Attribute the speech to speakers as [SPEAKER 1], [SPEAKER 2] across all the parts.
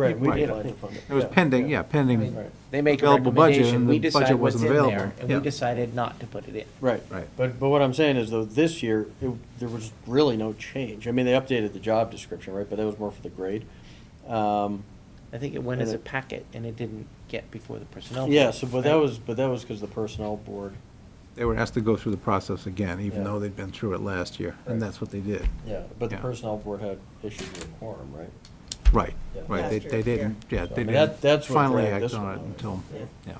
[SPEAKER 1] Right, we
[SPEAKER 2] Right.
[SPEAKER 1] did.
[SPEAKER 2] It was pending, yeah, pending,
[SPEAKER 3] Right. They make a
[SPEAKER 2] Available budget,
[SPEAKER 3] recommendation,
[SPEAKER 2] and
[SPEAKER 3] we
[SPEAKER 2] the budget
[SPEAKER 3] decide what's
[SPEAKER 2] wasn't
[SPEAKER 3] in there,
[SPEAKER 2] available.
[SPEAKER 3] and we
[SPEAKER 2] Yeah.
[SPEAKER 3] decided not to put it in.
[SPEAKER 1] Right.
[SPEAKER 2] Right.
[SPEAKER 1] But, but what I'm saying is though, this year, it, there was really no change. I mean, they updated the job description, right, but that was more for the grade. Um,
[SPEAKER 3] I think it went as
[SPEAKER 1] And
[SPEAKER 3] a
[SPEAKER 1] it-
[SPEAKER 3] packet, and it didn't get before the personnel. board,
[SPEAKER 1] yeah, so, but that
[SPEAKER 3] right?
[SPEAKER 1] was, but that was because the personnel board.
[SPEAKER 2] they were asked to go through the process again, even
[SPEAKER 1] Yeah.
[SPEAKER 2] though they'd been through it last year, and
[SPEAKER 1] Right.
[SPEAKER 2] that's what they did.
[SPEAKER 1] Yeah. But the
[SPEAKER 2] Yeah.
[SPEAKER 1] personnel board had issues with quorum, right?
[SPEAKER 2] Right,
[SPEAKER 1] Yeah.
[SPEAKER 2] right, they,
[SPEAKER 4] Last
[SPEAKER 2] they
[SPEAKER 4] year,
[SPEAKER 2] didn't, yeah,
[SPEAKER 1] So, I
[SPEAKER 2] they
[SPEAKER 1] mean, that-
[SPEAKER 2] didn't
[SPEAKER 1] that's what
[SPEAKER 2] finally
[SPEAKER 1] dragged
[SPEAKER 2] act
[SPEAKER 1] this
[SPEAKER 2] on
[SPEAKER 1] one
[SPEAKER 2] it
[SPEAKER 1] out.
[SPEAKER 2] until,
[SPEAKER 1] Yeah.
[SPEAKER 2] yeah.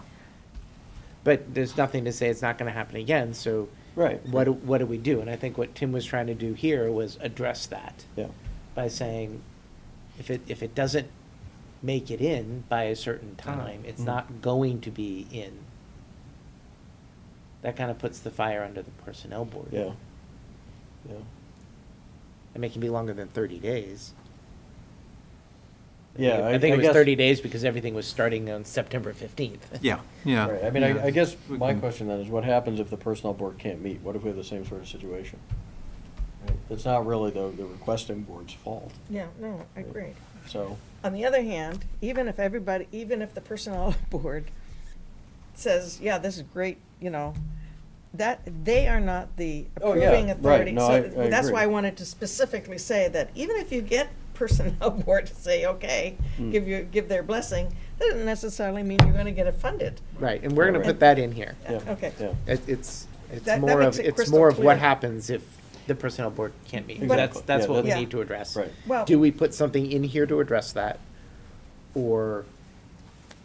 [SPEAKER 3] But there's nothing to say it's not gonna happen again, so.
[SPEAKER 1] Right.
[SPEAKER 3] What, do- what do we do? And I think what Tim was trying to do here was address that.
[SPEAKER 1] Yeah.
[SPEAKER 3] By saying, if it, if it doesn't make it in by a certain time, it's
[SPEAKER 1] Mhm.
[SPEAKER 3] not going to be in. That kind of puts the fire under the personnel board.
[SPEAKER 1] Yeah. Yeah.
[SPEAKER 3] I mean, it can be longer than thirty days.
[SPEAKER 1] Yeah.
[SPEAKER 3] I think it was
[SPEAKER 1] guess-
[SPEAKER 3] thirty days because everything was starting on September fifteenth.
[SPEAKER 2] Yeah, yeah.
[SPEAKER 1] Right, I mean,
[SPEAKER 2] yeah. Mm-hmm.
[SPEAKER 1] I, I guess
[SPEAKER 2] We
[SPEAKER 1] my
[SPEAKER 2] can-
[SPEAKER 1] question then is what happens if the personnel board can't meet? What if we have the same sort of situation? Right, It's not really the, the requesting board's fault,
[SPEAKER 4] Yeah, no, I agree.
[SPEAKER 1] so,
[SPEAKER 4] On the other hand, even if everybody, even if the personnel board says, yeah, this is great, you know, that, they are not the
[SPEAKER 1] Oh, yeah,
[SPEAKER 4] approving
[SPEAKER 1] right,
[SPEAKER 4] authority.
[SPEAKER 1] no,
[SPEAKER 4] So
[SPEAKER 1] I- I
[SPEAKER 4] That's why I
[SPEAKER 1] agree.
[SPEAKER 4] wanted to specifically say that even if you get personnel board to say, okay,
[SPEAKER 1] Mm.
[SPEAKER 4] give you, give their blessing, that doesn't necessarily mean you're gonna get it funded.
[SPEAKER 3] Right, and we're gonna
[SPEAKER 1] Right.
[SPEAKER 3] put that in here.
[SPEAKER 4] Yeah,
[SPEAKER 1] yeah,
[SPEAKER 4] okay.
[SPEAKER 1] yeah.
[SPEAKER 3] It, it's, it's
[SPEAKER 4] That- that
[SPEAKER 3] more
[SPEAKER 4] makes
[SPEAKER 3] of,
[SPEAKER 4] it
[SPEAKER 3] it's
[SPEAKER 4] crystal
[SPEAKER 3] more of
[SPEAKER 4] clear.
[SPEAKER 3] what happens if the personnel board can't meet.
[SPEAKER 1] Exactly.
[SPEAKER 3] That's, that's
[SPEAKER 1] Yeah,
[SPEAKER 3] what we
[SPEAKER 4] that's-
[SPEAKER 3] need to address.
[SPEAKER 1] Right.
[SPEAKER 4] Well-
[SPEAKER 3] Do we put something in here to address that? Or,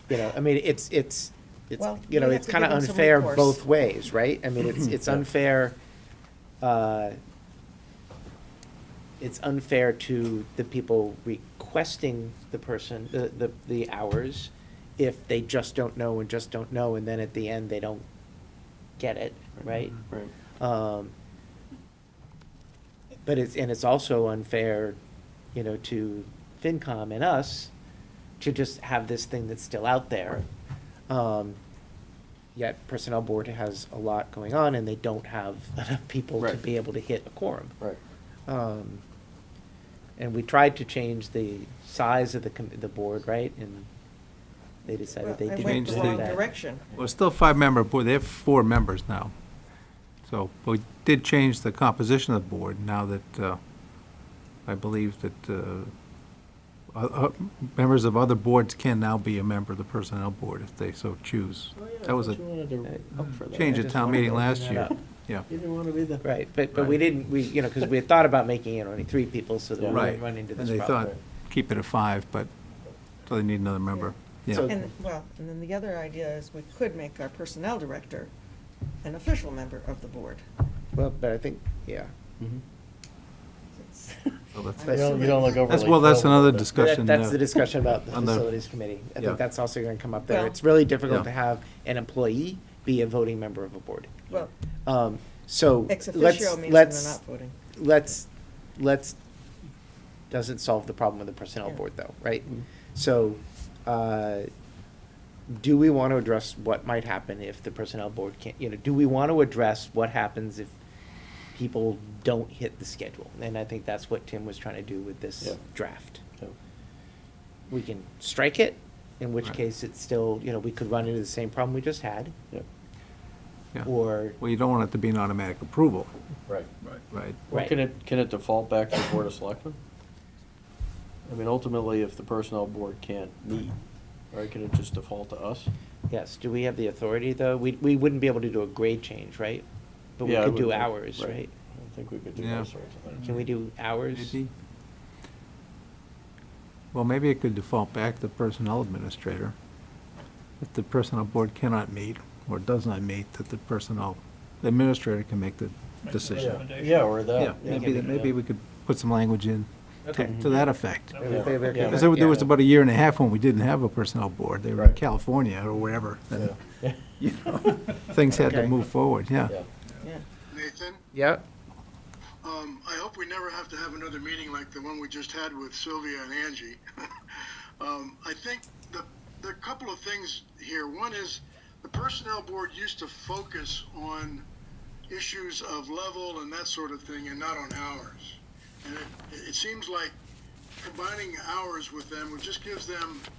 [SPEAKER 3] you know, I mean, it's, it's, it's,
[SPEAKER 4] Well,
[SPEAKER 3] you know,
[SPEAKER 4] we
[SPEAKER 3] it's
[SPEAKER 4] have
[SPEAKER 3] kinda
[SPEAKER 4] to give them some
[SPEAKER 3] unfair
[SPEAKER 4] recourse.
[SPEAKER 3] both ways, right? I mean, it's, it's unfair, uh, it's unfair to the people requesting the person, the, the, the hours, if they just don't know and just don't know, and then at the end, they don't get it, right?
[SPEAKER 1] Right.
[SPEAKER 3] Um, But it's, and it's also unfair, you know, to FinCom and us to just have this thing that's still out there. Um, Yet Personnel Board has a lot going on and they don't have enough people to
[SPEAKER 1] Right.
[SPEAKER 3] be able to hit a quorum.
[SPEAKER 1] Right,
[SPEAKER 3] Um, And we tried to change the size of the, com- the board, right? And they decided they
[SPEAKER 4] Well, I
[SPEAKER 3] didn't
[SPEAKER 4] went
[SPEAKER 2] Change
[SPEAKER 3] want
[SPEAKER 4] the
[SPEAKER 2] the-
[SPEAKER 4] wrong
[SPEAKER 3] that.
[SPEAKER 4] direction.
[SPEAKER 2] Well, it's still five-member board, they have four members now. So, but we did change the composition of the board now that, uh, I believe that, uh, uh, uh, members of other boards can now be a member of the personnel board if they so choose.
[SPEAKER 1] Oh,
[SPEAKER 2] That was a
[SPEAKER 3] Uh,
[SPEAKER 2] uh, change
[SPEAKER 3] oh, I
[SPEAKER 2] at
[SPEAKER 3] just
[SPEAKER 2] town
[SPEAKER 3] wanted to
[SPEAKER 2] meeting
[SPEAKER 3] bring
[SPEAKER 2] last
[SPEAKER 3] that
[SPEAKER 2] year,
[SPEAKER 3] up.
[SPEAKER 2] yeah.
[SPEAKER 1] didn't want to be the.
[SPEAKER 3] Right, but, but we
[SPEAKER 2] Right.
[SPEAKER 3] didn't, we, you know, because we had thought about making it only three people so that we
[SPEAKER 2] Right,
[SPEAKER 3] wouldn't run
[SPEAKER 2] and
[SPEAKER 3] into this
[SPEAKER 2] they thought,
[SPEAKER 3] problem.
[SPEAKER 2] keep it at five, but, so they need another member,
[SPEAKER 3] So-
[SPEAKER 2] yeah.
[SPEAKER 4] And, well, and then the other idea is we could make our personnel director an official member of the board.
[SPEAKER 3] Well, but I think, yeah.
[SPEAKER 1] Mm-hmm.
[SPEAKER 4] It's-
[SPEAKER 2] So that's-
[SPEAKER 1] You don't, you don't look over.
[SPEAKER 2] That's, well, that's another discussion.
[SPEAKER 3] That's
[SPEAKER 2] uh,
[SPEAKER 3] the discussion about the
[SPEAKER 2] on the-
[SPEAKER 3] facilities committee. I
[SPEAKER 2] Yeah.
[SPEAKER 3] think that's also going to come up there.
[SPEAKER 4] Well-
[SPEAKER 3] It's really difficult
[SPEAKER 2] Yeah.
[SPEAKER 3] to have an employee be a voting member of a board.
[SPEAKER 4] Well,
[SPEAKER 3] Um, So
[SPEAKER 4] ex
[SPEAKER 3] let's,
[SPEAKER 4] officio means they're
[SPEAKER 3] let's,
[SPEAKER 4] not voting.
[SPEAKER 3] let's, let's, doesn't solve the problem of the personnel
[SPEAKER 4] Yeah.
[SPEAKER 3] board though, right?
[SPEAKER 1] Mm-hmm.
[SPEAKER 3] So, uh, do we want to address what might happen if the personnel board can't, you know, do we want to address what happens if people don't hit the schedule? And I think that's what Tim was trying to do with
[SPEAKER 1] Yeah.
[SPEAKER 3] this draft.
[SPEAKER 1] Yeah.
[SPEAKER 3] We can strike it, in which
[SPEAKER 2] Right.
[SPEAKER 3] case it's still, you know, we could run into the same problem we just had,
[SPEAKER 1] Yeah,
[SPEAKER 2] yeah.
[SPEAKER 3] or,
[SPEAKER 2] Well, you don't want it to be an automatic approval,
[SPEAKER 1] right.
[SPEAKER 2] right?
[SPEAKER 1] Well,
[SPEAKER 3] Right.
[SPEAKER 1] can it, can it default back to the board of selectmen? I mean, ultimately, if the personnel board can't meet, right, can it just default to us?
[SPEAKER 3] yes, do we have the authority though? We, we wouldn't be able to do a grade change, right? But we
[SPEAKER 1] Yeah, I
[SPEAKER 3] could do
[SPEAKER 1] would think-
[SPEAKER 3] hours, right?
[SPEAKER 1] I think we could do
[SPEAKER 2] Yeah.
[SPEAKER 1] all sorts of things.
[SPEAKER 3] Can we do hours?
[SPEAKER 2] Maybe. Well, maybe it could default back to the personnel administrator. If the personnel board cannot meet or does not meet, that the personnel the administrator can make the decision.
[SPEAKER 1] Yeah, Yeah, or that.
[SPEAKER 2] Yeah, maybe, that- maybe we could put some language in to-
[SPEAKER 3] Okay.
[SPEAKER 2] to that effect.
[SPEAKER 3] Maybe they- they could-
[SPEAKER 1] Yeah.
[SPEAKER 2] Because there there was
[SPEAKER 3] yeah.
[SPEAKER 2] about a year and a half when we didn't have a personnel board. They were in
[SPEAKER 1] Right.
[SPEAKER 2] California or wherever. and,
[SPEAKER 1] Yeah.
[SPEAKER 2] you know, Things had to
[SPEAKER 3] Okay.
[SPEAKER 2] move forward, yeah.
[SPEAKER 1] Yeah.
[SPEAKER 4] Yeah.
[SPEAKER 5] Nathan,
[SPEAKER 3] Yeah,
[SPEAKER 5] um, I hope we never have to have another meeting like the one we just had with Sylvia and Angie. um, I think the, the couple of things here. One is the personnel board used to focus on issues of level and that sort of thing and not on hours. And it, it seems like combining hours with them, which just gives them